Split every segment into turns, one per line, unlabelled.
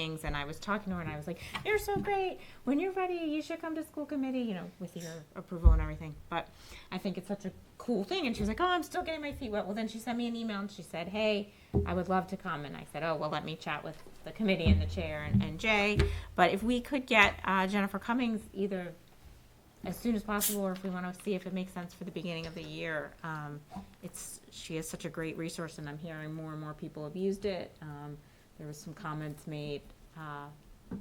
things and I was talking to her and I was like, You're so great. When you're ready, you should come to school committee, you know, with your approval and everything. But I think it's such a cool thing. And she was like, Oh, I'm still getting my feet wet. Well, then she sent me an email and she said, Hey, I would love to come. And I said, Oh, well, let me chat with the committee and the chair and, and Jay. But if we could get uh, Jennifer Cummings either as soon as possible, or if we want to see if it makes sense for the beginning of the year. Um, it's, she is such a great resource, and I'm hearing more and more people have used it. Um, there was some comments made, uh,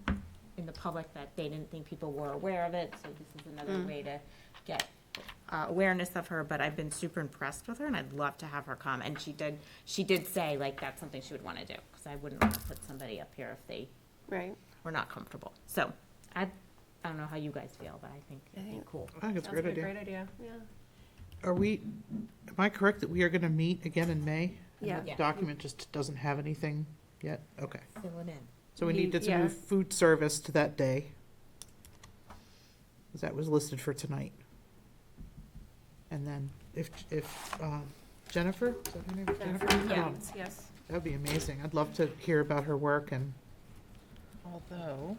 in the public that they didn't think people were aware of it, so this is
Mm.
another way to get, uh, awareness of her, but I've been super impressed with her, and I'd love to have her come, and she did, she did say, like, that's something she would want to do, because I wouldn't want to put somebody up here if they
Right.
were not comfortable. So, I, I don't know how you guys feel, but I think it'd be
think-
cool.
I think it's a great idea.
Great idea, yeah.
Are we, am I correct that we are going to meet again in May? And
Yeah.
the
Yeah.
Document just doesn't have anything yet? Okay.
Fill it in.
So we need
Ye-
to
yeah.
move food service to that day. 'Cause that was listed for tonight. And then if, if um, Jennifer, is that her name? Jennifer?
Yeah,
Um,
yes.
That'd be amazing. I'd love to hear about her work and,
Although,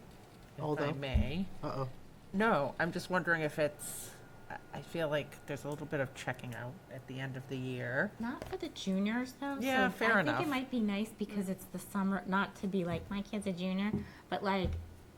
if I
Although.
may,
uh-oh.
no, I'm just wondering if it's. I- I feel like there's a little bit of checking out at the end of the year.
Not for the juniors though.
Yeah,
so
fair
I
enough.
think it might be nice because it's the summer, not to be like my kid's a junior, but like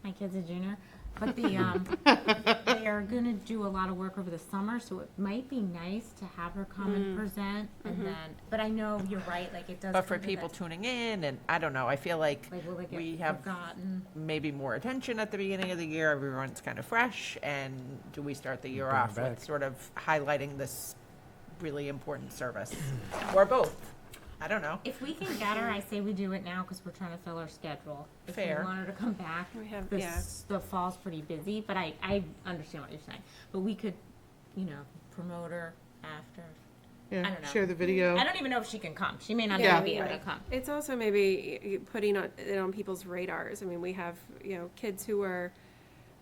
my kid's a junior. But the um, they are gonna do a lot of work over the summer, so it might be nice to have her come and present, and then. But I know you're right. Like it does.
Mm. Mm-hmm. But for
come to
people
that-
tuning in, and I don't know, I feel like
like will it get
we have
forgotten?
maybe more attention at the beginning of the year. Everyone's kind of fresh, and do we start the year
Bring it
off
back.
with sort of highlighting this really important service, or both? I don't know.
If we can get her, I say we do it now because we're trying to fill her schedule. If we
Fair.
want her to come back,
We have,
the,
yeah,
s- the fall's pretty busy, but I, I understand what you're saying. But we could, you know, promote her after.
Yeah,
don't know.
share the video.
I don't even know if she can come. She may not
Yeah,
even be able to
right.
come.
it's also maybe y- y- putting on- it on people's radars. I mean, we have, you know, kids who are,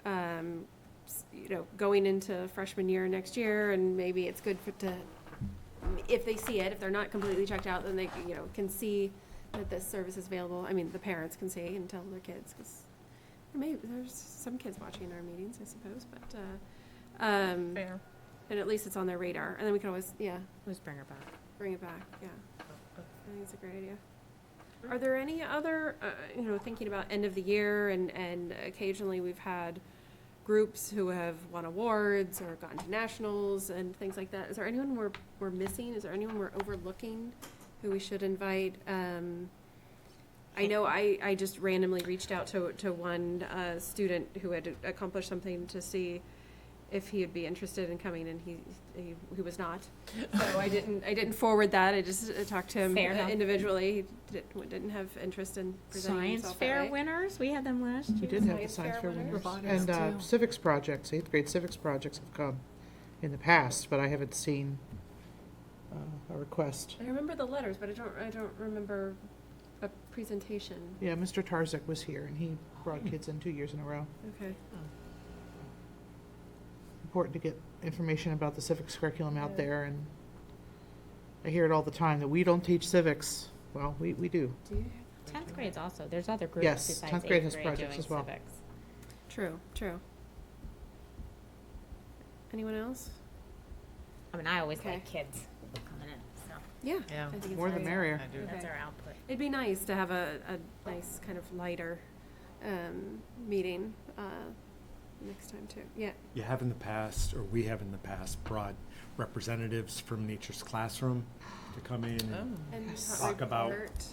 um, s- you know, going into freshman year next year, and maybe it's good for, to, if they see it, if they're not completely checked out, then they, you know, can see that this service is available. I mean, the parents can see and tell their kids, because maybe, there's some kids watching our meetings, I suppose, but, uh, um,
Fair.
And at least it's on their radar, and then we can always, yeah,
Let's bring her back.
bring it back, yeah. I think it's a great idea. Are there any other, uh, you know, thinking about end of the year and, and occasionally we've had groups who have won awards or gone to nationals and things like that. Is there anyone we're, we're missing? Is there anyone we're overlooking who we should invite? Um, I know I, I just randomly reached out to, to one, uh, student who had accomplished something to see if he'd be interested in coming and he, he, he was not. So I didn't, I didn't forward that. I just uh, talked to him
Fair
uh,
enough.
individually. He didn't, didn't have interest in presenting
Science
himself that
fair
way.
winners. We had them last
We
year.
did have the
Science
science
fair
fair
winners.
winners. And uh, civics projects, eighth grade civics projects have come in the past, but I haven't seen uh, a request.
I remember the letters, but I don't, I don't remember a presentation.
Yeah, Mr. Tarzik was here and he brought kids in two years in a row.
Okay.
Important to get information about the civics curriculum
Yeah.
out there and I hear it all the time that we don't teach civics. Well, we, we do.
Do you?
Tenth grade's also. There's other groups
Yes,
besides
10th
eighth
grade has
grade
projects
doing
as well.
civics.
True, true. Anyone else?
I mean, I always
Okay.
like kids coming in, so
Yeah.
Yeah.
I think it's
More the
nice.
merrier.
I do.
that's
Okay.
our output.
It'd be nice to have a, a nice kind of lighter, um, meeting, uh, next time too. Yeah.
You have in the past, or we have in the past, brought representatives from Nature's Classroom to come in and
And
Mm-hmm. Yes.
hot
Talk about-
report.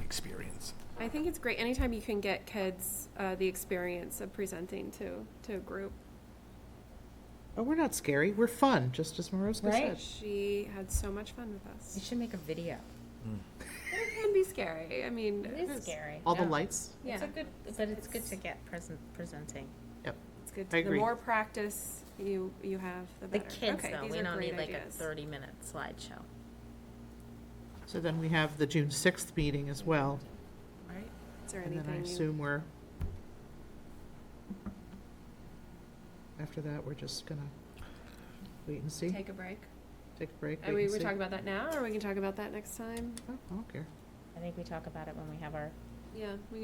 experience.
I think it's great anytime you can get kids, uh, the experience of presenting to, to a group.
But we're not scary. We're fun, just as Maroska
Right.
said.
She had so much fun with
You
us.
should make a video.
It can be scary. I mean,
It is scary.
All the
Yeah.
lights.
Yeah.
It's a good, but it's good to get present presenting.
It's good.
I
to- The
agree.
more practice you, you have, the
The
better.
kids
Okay,
though,
these
we
are
don't
great
need like a
ideas.
thirty-minute slideshow.
So then we have the June sixth meeting as well.
Right.
Is there
And then I
anything you-
assume we're, after that, we're just gonna wait and see, take
Take a break.
a break,
And
wait
we
and
were
see. Oh,
talking about that now, or we can talk about that next time?
I don't care.
I think we talk about it when we have our
Yeah, we